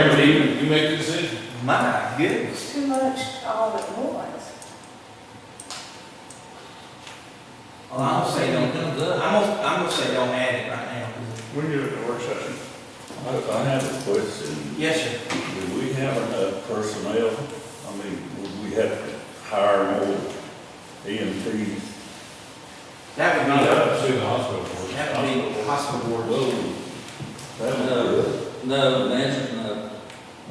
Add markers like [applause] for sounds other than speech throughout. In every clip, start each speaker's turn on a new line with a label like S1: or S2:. S1: you make the decision.
S2: My goodness.
S3: It's too much oh, all at once.
S2: Well, I'm gonna say don't, I'm gonna, I'm gonna say don't add it right now.
S4: We can do it in the work session.
S5: I I have a question.
S2: Yes, sir.
S5: Do we have enough personnel? I mean, would we have to hire more E EMTs?
S2: That would
S1: Not
S2: be,
S1: up to the hospital board.
S2: that would be hospital board.
S5: Whoa, that would
S6: No, no, that's, no.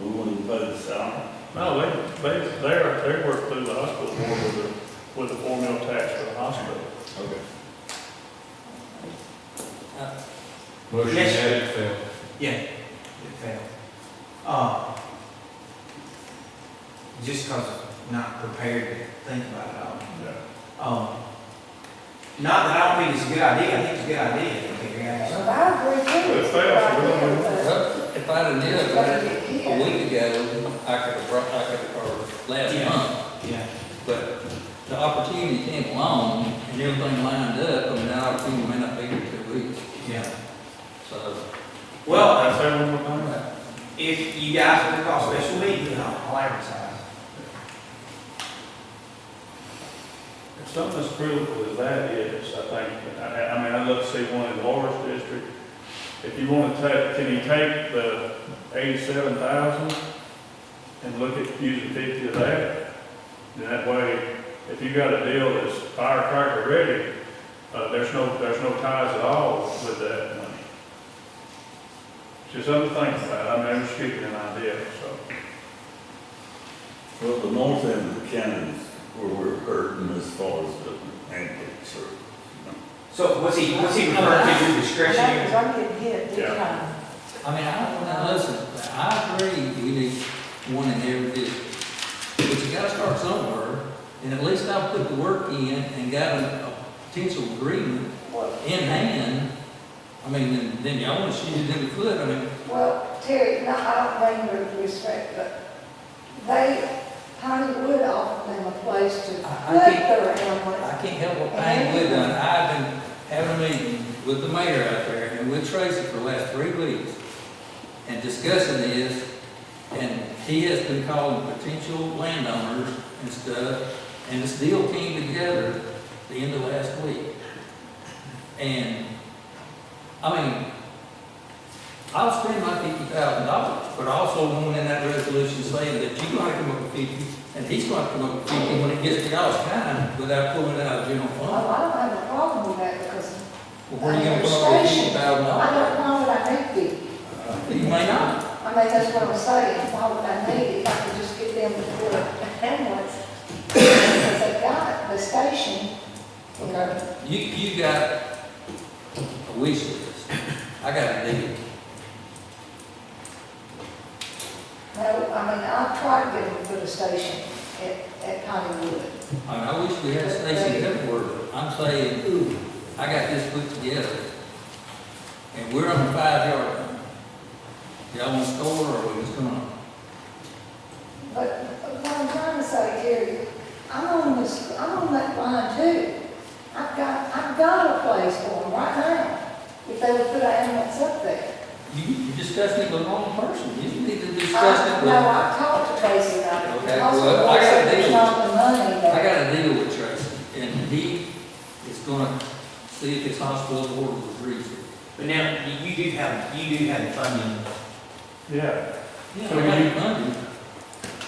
S5: We wouldn't pay the salary.
S4: No, they, they, they are, they work through the hospital board with the, with the four mil tax for the hospital.
S5: Okay.
S1: Motion
S2: Yes,
S1: had it failed.
S2: Yeah, it failed. Uh, just cause I'm not prepared to think about it all. Um, not that I don't think it's a good idea, I think it's a good idea, okay, guys.
S3: But I agree with you.
S4: It's fast, we don't
S6: Well, If I'd have knew about it a week ago, I could have brought, I could have, or last
S2: Yeah.
S6: month,
S2: Yeah,
S6: but the opportunity came along and everything lined up, and that opportunity may not be for two weeks,
S2: yeah.
S6: so.
S2: Well,
S4: That's how we're gonna do it.
S2: if you guys want to call a special meeting, I'll I'll advertise.
S4: If Something as critical as that is, I think, I, I mean, I'd love to see one in Laura's district. If you wanna take, can you take the eighty-seven thousand and look at using fifty of that? Then that way, if you got a deal that's firecracker ready, uh, there's no, there's no ties at all with that money. Just other things about, it. I mean, I'm just giving you an idea, so.
S5: Well, the north end of the county is where we're hurting as far as the ambulance service.
S2: So what's he, what's he referring to, your
S3: Because
S2: discretion?
S3: I didn't get it this
S4: Yeah.
S3: time.
S6: I mean, I, now, listen, I agree we need one in every district, but you gotta start somewhere, and at least I put the work in and got a, a potential agreement
S3: Well,
S6: in hand. I mean, then, then y'all wanna shoot it in the foot, I mean,
S3: Well, Terry, no, I don't mean with respect, but they, Hollywood offered them a place to put
S6: I- I think-
S3: their ambulance.
S6: I can't help what Payne Wood done, I've been having a meeting with the mayor out there and with Tracy for the last three weeks, and discussing this, and he has been calling potential landowners and stuff, and this deal came together the end of last week. And, I mean, I'll spend my fifty thousand dollars, but I also want in that resolution saying that you're gonna come up with fifty, and he's gonna come up with fifty when it gets to y'all's time, without pulling it out of general
S3: Well,
S6: fund.
S3: Oh, I don't have a problem with that because
S6: Well, where are you gonna come up with fifty
S3: I
S6: thousand dollars?
S3: don't know that I need it.
S6: You may not.
S3: I mean, that's what I'm saying, why would I need it? I could just get them to put an ambulance. [coughs] Because they got the station. you know.
S6: You, you got a wish list, I got a deal.
S3: No, I mean, I've tried to get them to put a station at, at Hollywood.
S6: I mean, I wish we had Stacy Hepworth, I'm saying, ooh, I got this put together, and we're on the five yard line. Y'all want to score, or we just gonna?
S3: But what I'm trying to say, Terry, I'm on this, I'm on that line too. I've got, I've got a place for them right now, if they would put an ambulance up there.
S6: You, you discussed it with the wrong person, you need to discuss
S3: I-
S6: it with,
S3: No,
S6: I
S3: I talked to Tracy about it.
S6: Okay,
S3: The hospital
S6: well, I gotta
S3: said there's
S6: deal
S3: not the money there.
S6: got a deal with Tracy, and he is gonna see if his hospital board was reasonable.
S2: But now, you- you do have, you do have funding.
S4: Yeah.
S6: Yeah,
S4: So
S6: I got
S4: you-
S6: it funded.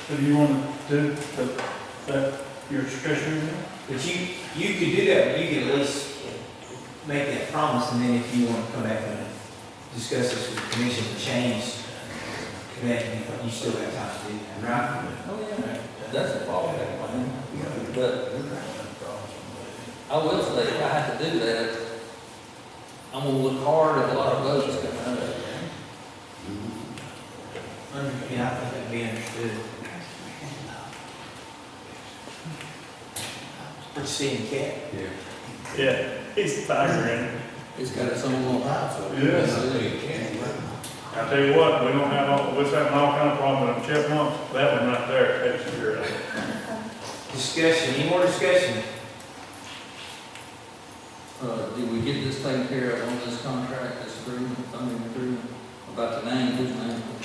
S4: So do you want to do the, that, your discretion?
S2: But you, you could do that, but you could at least make that promise, and then if you want to come back and discuss this with the commission and change, come back, and you still have time to do that, right?
S6: Oh, yeah, that's a fallback plan, but I will say, if I have to do that, I'm gonna look hard at a lot of votes coming out of it.
S2: Under- Yeah, I think that'd be understood. We're seeing cat.
S1: Yeah.
S4: Yeah, he's tiring.
S6: It's got its own little house.
S4: I tell you what, we don't have, all we're having all kind of problems with chipmunks, that one right there, that's your,
S2: Discussion, any more discussion?
S6: Uh, do we get this taken care of on this contract, this agreement, funding agreement, about the name, whose name?